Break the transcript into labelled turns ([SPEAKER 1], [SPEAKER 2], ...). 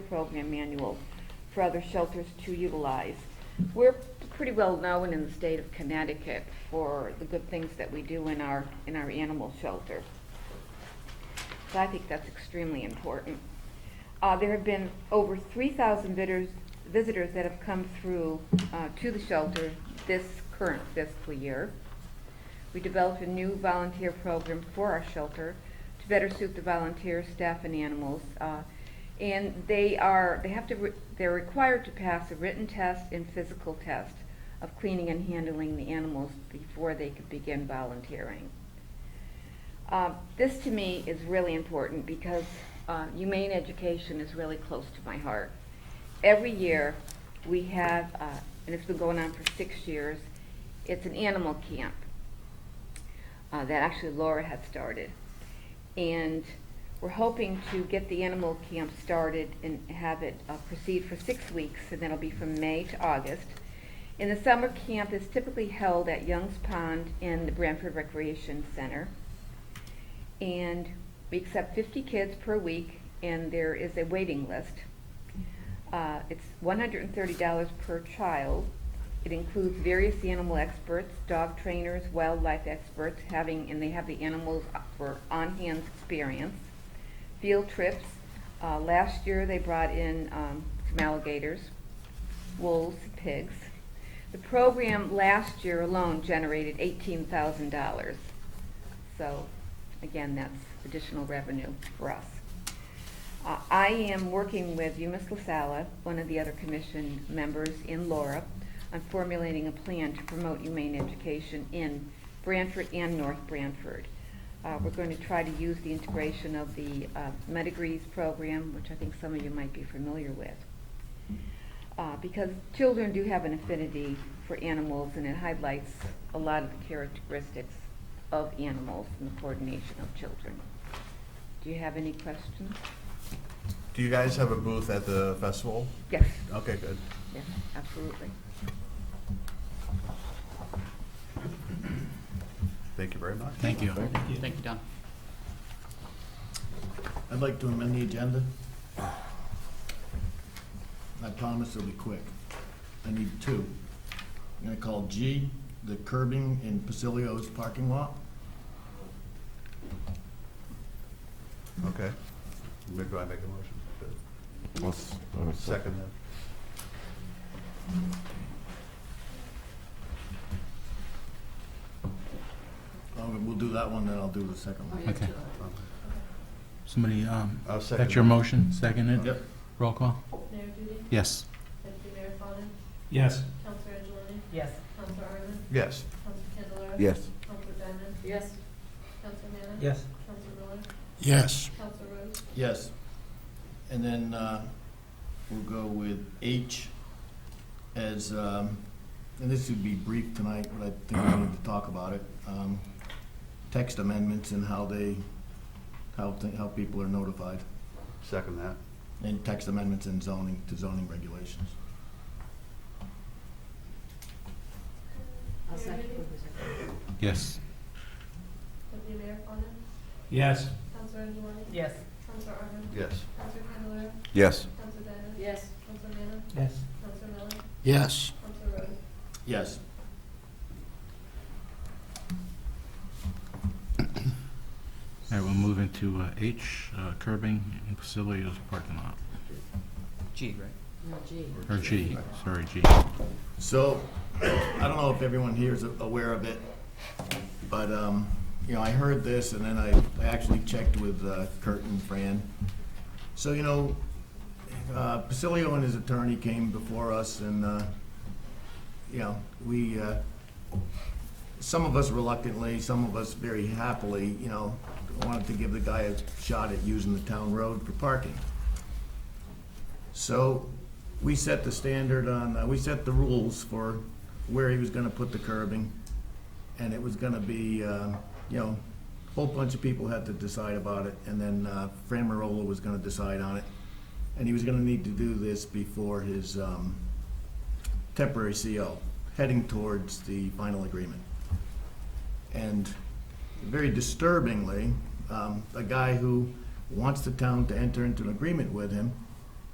[SPEAKER 1] program manual for other shelters to utilize. We're pretty well known in the state of Connecticut for the good things that we do in our, in our animal shelter. So I think that's extremely important. Uh, there have been over three thousand visitors, visitors that have come through, uh, to the shelter this current fiscal year. We developed a new volunteer program for our shelter to better suit the volunteers, staff, and animals. uh, And they are, they have to, re- they're required to pass a written test and physical test of cleaning and handling the animals before they could begin volunteering. Uh, This to me is really important because uh, humane education is really close to my heart. Every year, we have, uh, and it's been going on for six years, it's an animal camp uh, that actually Laura had started. And we're hoping to get the animal camp started and have it uh, proceed for six weeks, and that'll be from May to August. And the summer camp is typically held at Young's Pond in the Branford Recreation Center. And we accept 50 kids per week, and there is a waiting list. Uh, It's $130 per child. It includes various animal experts, dog trainers, wildlife experts, having, and they have the animals for on-hand experience. Field trips, Uh, last year they brought in um, some alligators, wolves, pigs. The program last year alone generated $18,000. So, again, that's additional revenue for us. Uh, I am working with Yumis Lasala, one of the other commission members, in Laura, on formulating a plan to promote humane education in Branford and North Branford. Uh, We're going to try to use the integration of the uh, Medigrees program, which I think some of you might be familiar with. Uh, Because children do have an affinity for animals, and it highlights a lot of the characteristics of animals and the coordination of children. Do you have any questions?
[SPEAKER 2] Do you guys have a booth at the festival?
[SPEAKER 1] Yes,
[SPEAKER 2] Okay, good.
[SPEAKER 1] yes, absolutely.
[SPEAKER 2] Thank you very much.
[SPEAKER 3] Thank you. Thank you, Don.
[SPEAKER 4] I'd like to amend the agenda. I promise it'll be quick. I need two. I'm gonna call G, the curbing in Pacilio's parking lot.
[SPEAKER 2] Okay. Where do I make a motion? Second then.
[SPEAKER 4] Oh, We'll do that one, then I'll do the second one.
[SPEAKER 3] Okay. Somebody, um,
[SPEAKER 2] I'll Oh, second.
[SPEAKER 3] that's your motion, second it?
[SPEAKER 4] Yep.
[SPEAKER 3] Roll call?
[SPEAKER 5] Mayor Duty,
[SPEAKER 3] Yes.
[SPEAKER 5] Deputy Mayor Fawnin,
[SPEAKER 6] Yes.
[SPEAKER 5] Counselor Angeloni,
[SPEAKER 6] Yes.
[SPEAKER 5] Counselor Arden,
[SPEAKER 2] Yes.
[SPEAKER 5] Counselor Candelara.
[SPEAKER 7] Yes.
[SPEAKER 5] Counselor Diamond,
[SPEAKER 6] Yes.
[SPEAKER 5] Counselor Manna.
[SPEAKER 6] Yes.
[SPEAKER 5] Counselor Miller,
[SPEAKER 7] Yes.
[SPEAKER 5] Counselor Rhodes,
[SPEAKER 4] Yes. And then uh, we'll go with H as, um, and this would be brief tonight, but I think we need to talk about it. Um, Text amendments and how they, how, thi- how people are notified,
[SPEAKER 2] Second that.
[SPEAKER 4] and text amendments and zoning, to zoning regulations.
[SPEAKER 5] Mayor Duty,
[SPEAKER 3] Yes.
[SPEAKER 5] Deputy Mayor Fawnin,
[SPEAKER 6] Yes.
[SPEAKER 5] Counselor Angeloni,
[SPEAKER 6] Yes.
[SPEAKER 5] Counselor Arden,
[SPEAKER 2] Yes.
[SPEAKER 5] Counselor Candelara,
[SPEAKER 7] Yes.
[SPEAKER 5] Counselor Diamond.
[SPEAKER 6] Yes.
[SPEAKER 5] Counselor Manna,
[SPEAKER 6] Yes.
[SPEAKER 5] Counselor Miller,
[SPEAKER 7] Yes.
[SPEAKER 5] Counselor Rhodes,
[SPEAKER 4] Yes.
[SPEAKER 3] All right, we'll move into uh, H, uh, curbing in Pacilio's parking lot,
[SPEAKER 6] G, right?
[SPEAKER 3] or G, sorry, G.
[SPEAKER 4] So, I don't know if everyone here is aware of it, but, um, you know, I heard this and then I, I actually checked with uh, Kurt and Fran. So, you know, uh, Pacilio and his attorney came before us and, uh, you know, we, uh, some of us reluctantly, some of us very happily, you know, wanted to give the guy a shot at using the town road for parking. So we set the standard on, uh, we set the rules for where he was gonna put the curbing. And it was gonna be, um, you know, a whole bunch of people had to decide about it. And then uh, Fran Marola was gonna decide on it. And he was gonna need to do this before his um, temporary CO, heading towards the final agreement. And very disturbingly, um, a guy who wants the town to enter into an agreement with him